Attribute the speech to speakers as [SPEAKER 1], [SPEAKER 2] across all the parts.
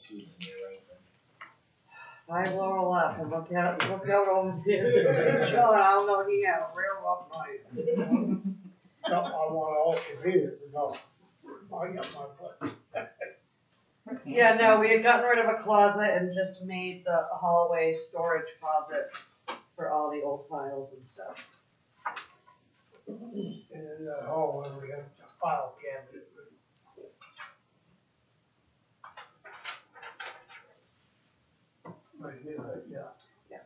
[SPEAKER 1] see when they're open.
[SPEAKER 2] I roll up and look out, look out over there. John, I don't know, he had a real rough night.
[SPEAKER 3] No, I want all to be there, no. I got my foot.
[SPEAKER 2] Yeah, no, we had gotten rid of a closet and just made the hallway storage closet for all the old files and stuff.
[SPEAKER 3] And in that hallway, we have a file cabinet. Right here, right, yeah.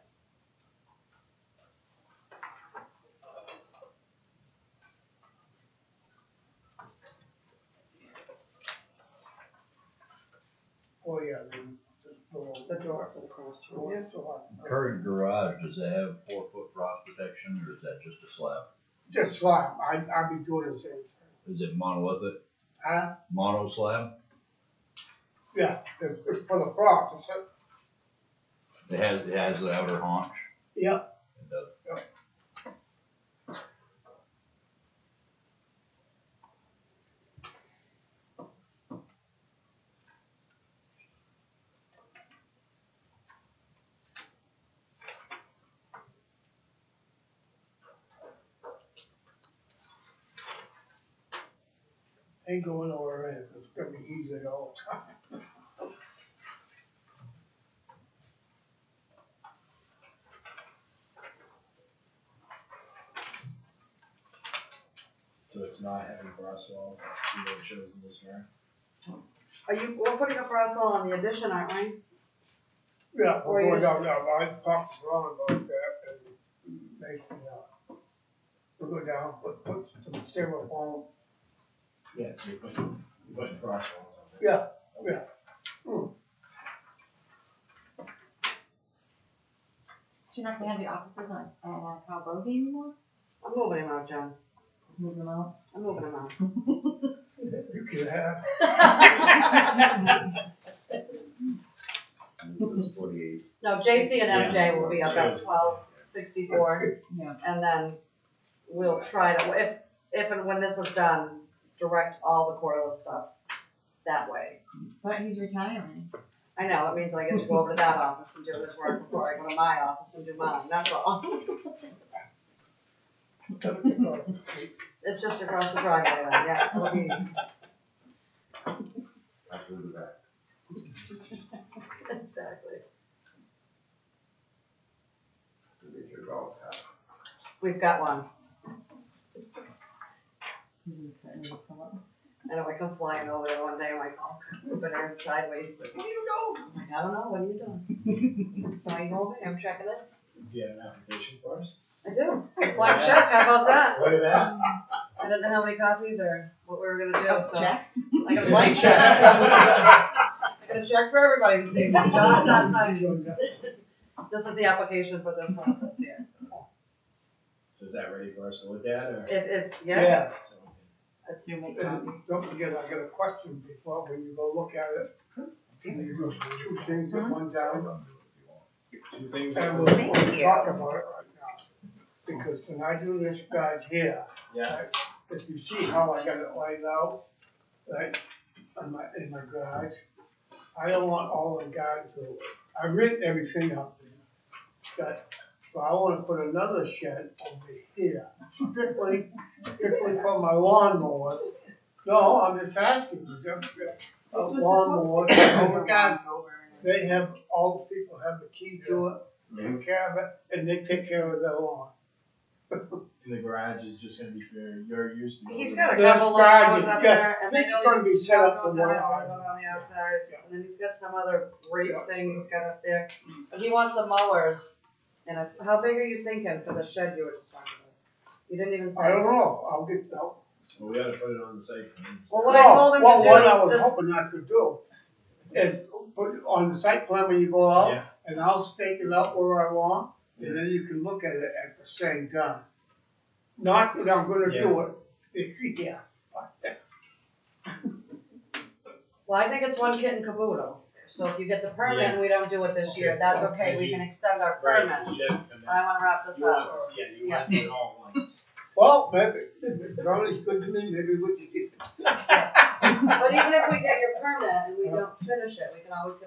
[SPEAKER 3] Oh, yeah, then, just go on.
[SPEAKER 2] The door for the classroom.
[SPEAKER 3] That's a lot.
[SPEAKER 4] Current garage, does it have four foot frost protection or is that just a slab?
[SPEAKER 3] Just slab, I, I'd be doing the same thing.
[SPEAKER 4] Is it monolithic,
[SPEAKER 3] Huh?
[SPEAKER 4] mono slab?
[SPEAKER 3] Yeah, it's, it's for the frogs, it's, a-
[SPEAKER 4] It has, it has the outer haunch?
[SPEAKER 3] yeah,
[SPEAKER 4] It does.
[SPEAKER 3] ain't going nowhere, and it's gonna be easy at all time.
[SPEAKER 1] So it's not having frost walls, see what it shows in this drawing.
[SPEAKER 2] Are you, we're putting a frost wall on the addition, aren't we?
[SPEAKER 3] Yeah,
[SPEAKER 2] Or
[SPEAKER 3] we're
[SPEAKER 2] you
[SPEAKER 3] going
[SPEAKER 2] just-
[SPEAKER 3] down, down, I talked to Ron about that, and basically, uh, we'll go down, put, put some styrofoam,
[SPEAKER 1] Yeah, so you're putting, you're putting frost walls on there.
[SPEAKER 3] yeah, yeah.
[SPEAKER 5] So you're not gonna have the offices on, on Cowboy anymore?
[SPEAKER 2] I'm moving him out, John.
[SPEAKER 5] Moving them out?
[SPEAKER 2] I'm moving him out.
[SPEAKER 3] You can have,
[SPEAKER 4] It's forty-eight.
[SPEAKER 2] No, JC and MJ will be up at twelve sixty-four,
[SPEAKER 5] Yeah.
[SPEAKER 2] and then we'll try to, if, if and when this is done, direct all the cordless stuff that way.
[SPEAKER 5] But he's retiring.
[SPEAKER 2] I know, it means I get to go over to that office and do his work before I go to my office and do mine, that's all. It's just across the driveway, then, yeah, it'll be easy.
[SPEAKER 1] I'll do that.
[SPEAKER 2] Exactly.
[SPEAKER 1] It's
[SPEAKER 2] We've got one,
[SPEAKER 5] He's retiring. He'll come up.
[SPEAKER 2] and if I come flying over there one day, I'm like, oh, but I'm sideways, but what are you doing? I'm like, I don't know, what are you doing? So I go over there, I'm checking it,
[SPEAKER 1] Do you have an application for us?
[SPEAKER 2] I do, black check, how about that?
[SPEAKER 1] What is that?
[SPEAKER 2] I didn't know how many copies or what we were gonna do, so.
[SPEAKER 5] Jack?
[SPEAKER 2] I got a blank check, so I got a check for everybody to see, but John's not signing. This is the application for this process here.
[SPEAKER 1] So is that ready for us to look at or?
[SPEAKER 2] It, it, yeah,
[SPEAKER 3] yeah,
[SPEAKER 1] So we can-
[SPEAKER 2] it's,
[SPEAKER 5] You make
[SPEAKER 3] and
[SPEAKER 5] coffee.
[SPEAKER 3] don't forget, I got a question before, when you go look at it. You go two things, put one down,
[SPEAKER 1] Two things.
[SPEAKER 3] and
[SPEAKER 2] Um,
[SPEAKER 3] we'll
[SPEAKER 5] Thank
[SPEAKER 3] we'll
[SPEAKER 5] you.
[SPEAKER 3] talk about it right now. Because when I do this badge here,
[SPEAKER 1] Yeah,
[SPEAKER 3] if you see how I got it laid out, right, in my, in my garage, I don't want all the guys to, I ripped everything up there. But, so I wanna put another shed over here, strictly, strictly for my lawnmower. No, I'm just asking, you just, a
[SPEAKER 5] This was
[SPEAKER 3] lawnmower,
[SPEAKER 5] supposed to-
[SPEAKER 3] over garden, they have, all the people have the key to it,
[SPEAKER 1] Mhm.
[SPEAKER 3] take care of it, and they take care of their lawn.
[SPEAKER 1] and the garage is just gonna be for your use. and
[SPEAKER 2] he's
[SPEAKER 1] yours.
[SPEAKER 2] got a
[SPEAKER 3] That's
[SPEAKER 2] couple
[SPEAKER 3] right,
[SPEAKER 2] logos up
[SPEAKER 3] yeah.
[SPEAKER 2] there and they
[SPEAKER 3] It's
[SPEAKER 2] know.
[SPEAKER 3] gonna be set up for
[SPEAKER 2] Goes out, goes
[SPEAKER 3] one.
[SPEAKER 2] on the outside,
[SPEAKER 3] Yeah.
[SPEAKER 2] and then he's got some other great
[SPEAKER 3] Yeah.
[SPEAKER 2] thing he's got up there. And He wants the mowers, and it's- how big are you thinking for the shed you were just talking about? You didn't even say.
[SPEAKER 3] I don't know, I'll get, I'll
[SPEAKER 1] Well, we gotta put it on the site. plan.
[SPEAKER 2] Well, what I told him to
[SPEAKER 3] Well,
[SPEAKER 2] do,
[SPEAKER 3] What I was
[SPEAKER 2] this-
[SPEAKER 3] hoping not to do is put it on the site plan when you go out,
[SPEAKER 1] Yeah,
[SPEAKER 3] and I'll stake it out where I want, and
[SPEAKER 1] Yeah.
[SPEAKER 3] then you can look at it at the same time. Not that I'm gonna do it, it's, yeah,
[SPEAKER 2] Well, I think it's one kit and caboodle, so if you get the permit and we don't do it this year,
[SPEAKER 1] Okay.
[SPEAKER 2] that's okay, we can extend our
[SPEAKER 1] right,
[SPEAKER 2] permit.
[SPEAKER 1] you have to come
[SPEAKER 2] I
[SPEAKER 1] back.
[SPEAKER 2] wanna wrap this
[SPEAKER 1] You want
[SPEAKER 2] up.
[SPEAKER 1] us- Yeah, you
[SPEAKER 2] Yeah.
[SPEAKER 1] want it all at once.
[SPEAKER 3] well, maybe, if it's always good to me, maybe we could get
[SPEAKER 2] But even if we get your permit and we don't finish it, we can always get